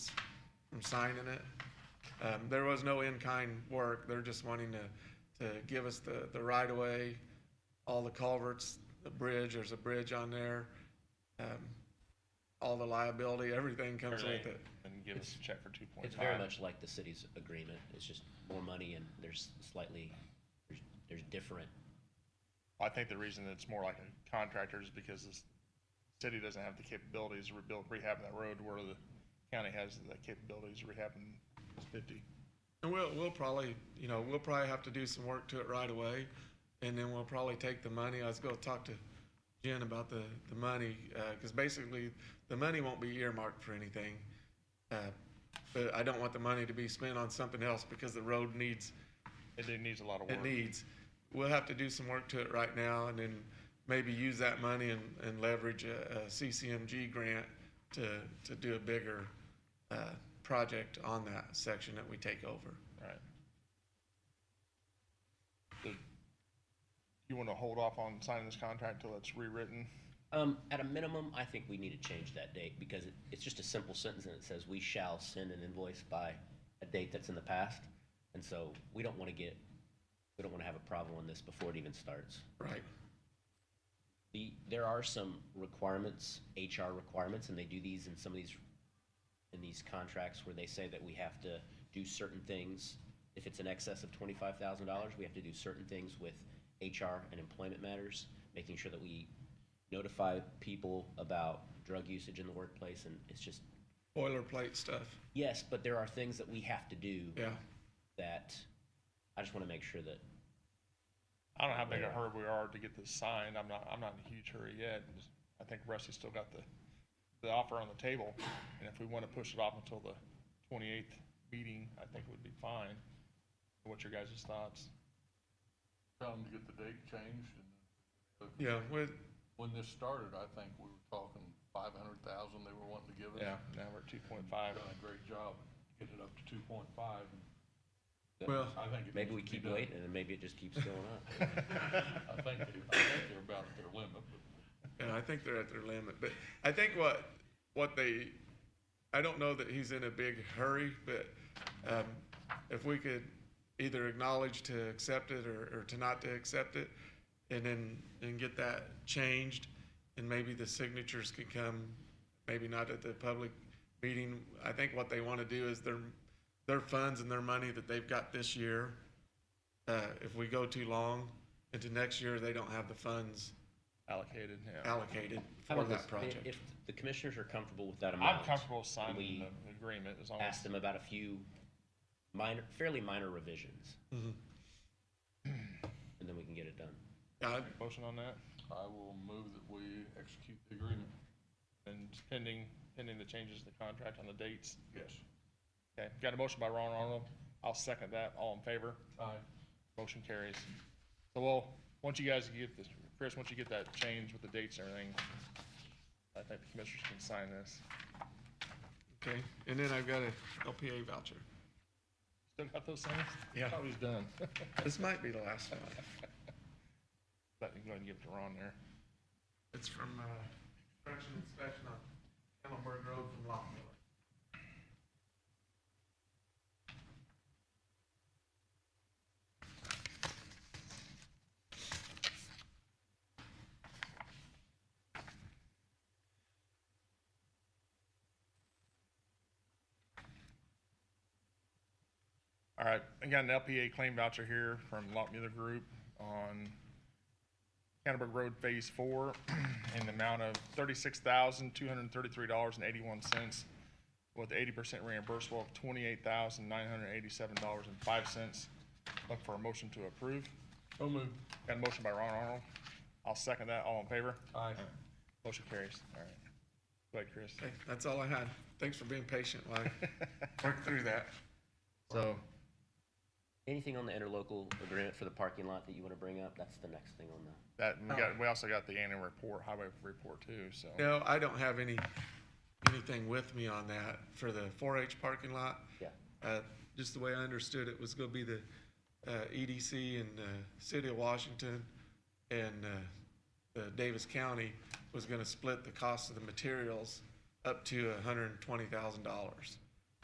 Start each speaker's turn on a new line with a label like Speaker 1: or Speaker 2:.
Speaker 1: from signing it. Um, there was no in-kind work, they're just wanting to, to give us the, the right-of-way, all the culverts, the bridge, there's a bridge on there. Um, all the liability, everything comes with it.
Speaker 2: And give us a check for two point five.
Speaker 3: It's very much like the city's agreement, it's just more money and there's slightly, there's, there's different,
Speaker 2: I think the reason that it's more like a contractor is because the city doesn't have the capabilities to rebuild, rehab that road where the county has the capabilities of rehabbing fifty.
Speaker 1: And we'll, we'll probably, you know, we'll probably have to do some work to it right away, and then we'll probably take the money, I was gonna talk to Jen about the, the money, uh 'cause cause basically, the money won't be earmarked for anything. Uh, But I don't want the money to be spent on something else, because the road needs,
Speaker 2: It it needs a lot of work.
Speaker 1: it needs. We'll have to do some work to it right now, and then maybe use that money and, and leverage a, a CCMG grant to, to do a bigger, uh, project on that section that we take over.
Speaker 2: Right. The- You wanna hold off on signing this contract till it's rewritten?
Speaker 3: um, at a minimum, I think we need to change that date because it, it's just a simple sentence and it says, we shall send an invoice by a date that's in the past. And so we don't wanna get, we don't wanna have a problem on this before it even starts.
Speaker 1: Right.
Speaker 3: The, there are some requirements, HR requirements, and they do these in some of these, in these contracts where they say that we have to do certain things. If it's in excess of twenty-five thousand dollars, we have to do certain things with HR and employment matters, making sure that we notify people about drug usage in the workplace, and it's just,
Speaker 1: boilerplate stuff.
Speaker 3: yes, but there are things that we have to do
Speaker 1: Yeah.
Speaker 3: that, I just wanna make sure that,
Speaker 2: I don't know how big a hurry we are to get this signed. I'm not, I'm not in a huge hurry yet. I think Rusty's still got the, the offer on the table. And if we want to push it off until the twenty-eighth meeting, I think it would be fine. What's your guys' thoughts?
Speaker 4: Time to get the date changed, and then-
Speaker 1: Yeah. With,
Speaker 4: when this started, I think we were talking five hundred thousand they were wanting to give us.
Speaker 2: Yeah, now we're at two point five.
Speaker 4: I've done a great job getting it up to two point five, and
Speaker 1: well,
Speaker 4: I think. it
Speaker 3: maybe we
Speaker 4: needs to be
Speaker 3: keep
Speaker 4: done.
Speaker 3: waiting, and then maybe it just keeps going up.
Speaker 4: I think, they- I think they're about at their limit, but
Speaker 1: yeah, I think they're at their limit, but I think what, what they, I don't know that he's in a big hurry, but, um, if we could either acknowledge to accept it or, or to not to accept it, and then, and get that changed, and maybe the signatures could come, maybe not at the public meeting. I think what they want to do is their, their funds and their money that they've got this year, uh, if we go too long into next year, they don't have the funds
Speaker 2: Allocated, yeah.
Speaker 1: allocated
Speaker 3: How
Speaker 1: for
Speaker 3: about
Speaker 1: that
Speaker 3: this?
Speaker 1: project.
Speaker 3: If the commissioners are comfortable with that amount.
Speaker 2: I'm comfortable
Speaker 3: and
Speaker 2: signing
Speaker 3: We
Speaker 2: the agreement as long as.
Speaker 3: ask them about a few minor, fairly minor revisions. And then we can get it done.
Speaker 1: Yeah, I-
Speaker 2: Motion on that,
Speaker 4: I will move that we execute the agreement.
Speaker 2: and pending, pending the changes to the contract on the dates.
Speaker 4: Yes.
Speaker 2: Okay, got a motion by Ron Arnold. I'll second that. All in favor?
Speaker 4: Aye.
Speaker 2: Motion carries. So we'll, once you guys get this, Chris, once you get that change with the dates and everything, I think the commissioners can sign this.
Speaker 1: okay, and then I've got a LPA voucher.
Speaker 2: Still got those things?
Speaker 1: Yeah.
Speaker 2: Thought we was done.
Speaker 1: This might be the last one.
Speaker 2: Let me go ahead and give it to Ron there.
Speaker 1: It's from, uh, construction inspection on Campbellburg Road from Lockmiller.
Speaker 2: All right, I got an LPA claim voucher here from Lot Mueller Group on Canterbury Road Phase Four in the amount of thirty-six thousand, two hundred and thirty-three dollars and eighty-one cents with eighty percent reimbursable of twenty-eight thousand, nine hundred and eighty-seven dollars and five cents. Look for a motion to approve.
Speaker 4: So moved.
Speaker 2: Got a motion by Ron Arnold. I'll second that. All in favor?
Speaker 4: Aye.
Speaker 2: Motion carries. All right. Go ahead, Chris.
Speaker 1: Okay, that's all I had. Thanks for being patient while I worked through that.
Speaker 2: So,
Speaker 3: Anything on the interlocal agreement for the parking lot that you want to bring up? That's the next thing on the,
Speaker 2: that, we got, we also got the annual report, highway report too, so.
Speaker 1: No, I don't have any, anything with me on that for the four H parking lot.
Speaker 3: yeah.
Speaker 1: Uh, just the way I understood it was gonna be the, uh, EDC and, uh, City of Washington and, uh, the Davis County was gonna split the cost of the materials up to hundred and twenty thousand dollars.